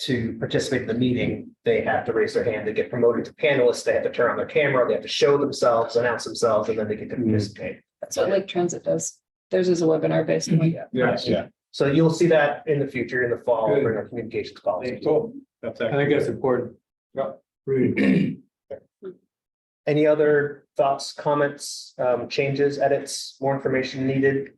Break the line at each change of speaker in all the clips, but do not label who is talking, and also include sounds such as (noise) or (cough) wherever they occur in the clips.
to participate in the meeting, they have to raise their hand, they get promoted to panelists, they have to turn on their camera, they have to show themselves, announce themselves, and then they get to participate.
That's what Lake Transit does. Theirs is a webinar based.
Mm-hmm.
one.
Yes,
Yeah.
So you'll see that in the future, in the fall,
Good.
in our communications policy.
Cool. That's.
I think that's important.
Yeah.
Really.
Any other thoughts, comments, um, changes, edits, more information needed?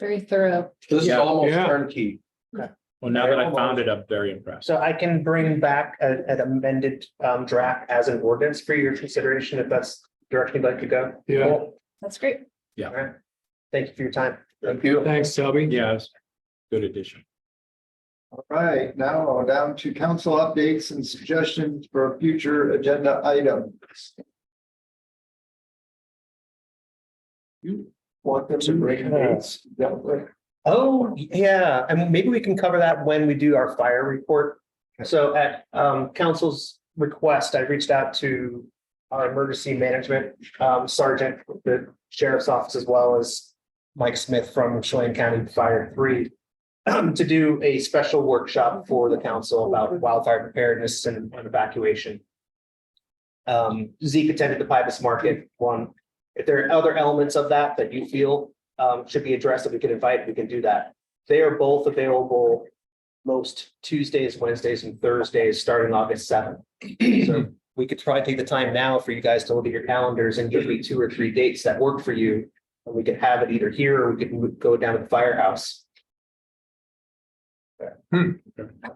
Very thorough.
This is
Yeah.
almost
Yeah.
turnkey.
Well, now that I found it, I'm very impressed.
So I can bring back a- an amended, um, draft as an ordinance for your consideration, if that's direction you'd like to go.
Yeah,
That's great.
Thank you for your time.
Thank you.
thanks, Selby.
Yes. Good addition.
All right, now we're down to council updates and suggestions for future agenda items. You want them to bring dates? Yeah, right.
Oh, yeah, and maybe we can cover that when we do our fire report. So at um council's request, I reached out to our emergency management um sergeant, the sheriff's office, as well as Mike Smith from Chelan County Fire Three (clears throat) um, to do a special workshop for the council about wildfire preparedness and and evacuation. Um, Zeke attended the Pybus Market one. If there are other elements of that that you feel um, should be addressed, if we can invite, we can do that. They are both available most Tuesdays, Wednesdays, and Thursdays, starting August seventh. So we could try to take the time now for you guys to look at your calendars and give me two or three dates that work for you. And we could have it either here or we could move- go down to the firehouse.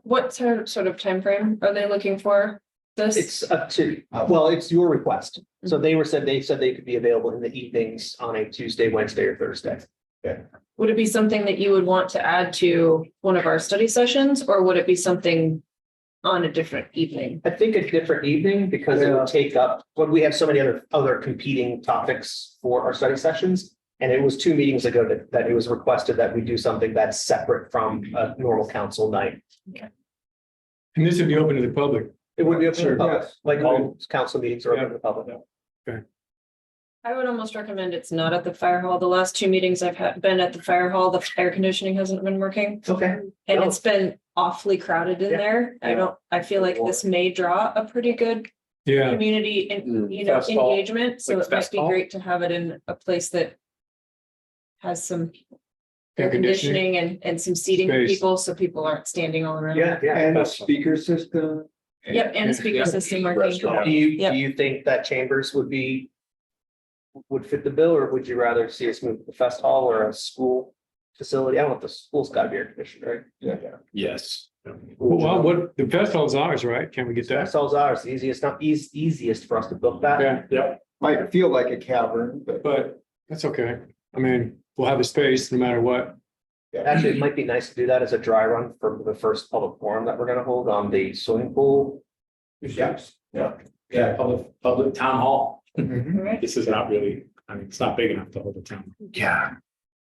What sort of sort of timeframe are they looking for? This,
It's up to, well, it's your request. So they were said, they said they could be available in the evenings on a Tuesday, Wednesday, or Thursday.
would it be something that you would want to add to one of our study sessions or would it be something on a different evening?
I think a different evening because it would take up, but we have so many other, other competing topics for our study sessions. And it was two meetings ago that, that it was requested that we do something that's separate from a normal council night.
And this would be open to the public.
It would be open to the
Sure.
public, like all council meetings are open to the public.
I would almost recommend it's not at the fire hall. The last two meetings I've had been at the fire hall, the air conditioning hasn't been working.
Okay.
And
No.
it's been awfully crowded in
Oh. Yeah.
there. I
Yeah.
don't, I feel like this may draw a pretty good
Yeah,
community and,
Mm,
you know,
fest hall.
engagement, so
Like
it might
fest
be
hall?
great to have it in a place that has some air
air conditioning.
conditioning and, and some seating for
Space.
people, so people aren't standing all around.
Yeah, yeah.
And the speaker system,
Yep, and a speaker
Yeah.
system working.
Restaurant.
Do you,
Yep.
do you think that chambers would be? Would fit the bill, or would you rather see us move to the fest hall or a school facility? I don't know if the school's got to be air conditioned, right?
Yes.
Well, what, the best hall's ours, right? Can we get that?
Fest hall's ours, easiest, not eas- easiest for us to book that.
Yeah,
might feel like a cavern, but
but that's okay. I mean, we'll have a space no matter what.
Actually, it might be nice to do that as a dry run for the first public forum that we're gonna hold on the swimming pool.
Yes. Yeah, yeah, public, public town hall.
Mm-hmm.
This is not really, I mean, it's not big enough to hold a town.
Yeah.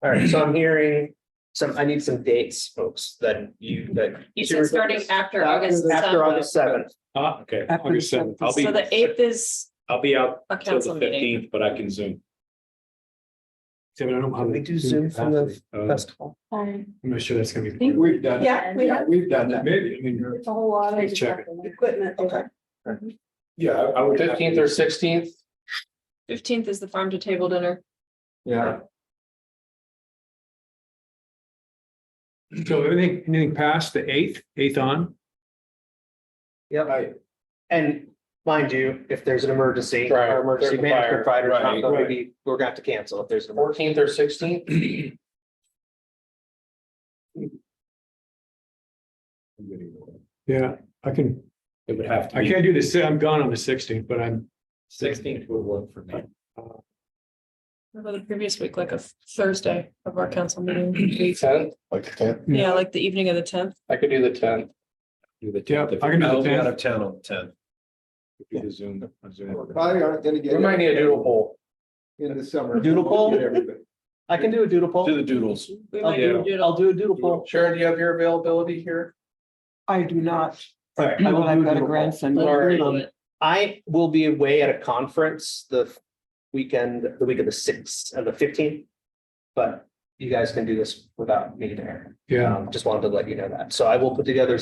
All right, so I'm hearing some, I need some dates, folks, that you, that.
You said starting after August
After
7th,
August seventh.
Ah, okay. August seventh. I'll be,
so the eighth is
I'll be out
a
till
council
the
meeting.
fifteenth, but I can zoom.
Yeah, but I don't have
Can we do Zoom from the
Uh,
fest hall?
I'm not sure that's gonna be.
Think-
we've done,
Yeah, we
yeah,
have
we've done that.
Maybe, I mean,
it's a whole lot of
Check it.
equipment. there.
Yeah, I I would.
Fifteenth or sixteenth?
Fifteenth is the farm to table dinner.
Yeah,
so anything, anything past the eighth, eighth on?
Yep,
right.
and mind you, if there's an emergency,
Right,
our emergency
there's a
management
fire,
provider,
right,
maybe we're gonna have to cancel if there's an emergency.
Fourteenth or sixteenth?
Yeah, I can,
It would have to
I
be
can't do this. I'm gone on the sixteenth, but I'm,
sixteenth would work for me.
What About the previous week, like a Thursday of our council meeting.
Tenth?
Yeah, like the evening of the tenth.
I could do the tenth.
Do the
yeah,
10th if
I can
you-
do the tenth.
town on the tenth.
if you do Zoom, a Zoom.
Probably aren't gonna
We
get.
might need a doodle poll.
In the summer.
Doodle poll?
Get everybody.
I can do a doodle poll.
the doodles.
We
I'll
might
do,
do
a
it
doodle-
all.
I'll do a doodle poll.
Sharon, do you have your availability here?
I do not,
All right, I
but
will do
I've got a
a doodle poll.
grandson.
Or
Um, I will be away at a conference the weekend, the week of the sixth and the fifteenth. But you guys can do this without me there.
Yeah.
Um, Just wanted to let you know that. So I will put together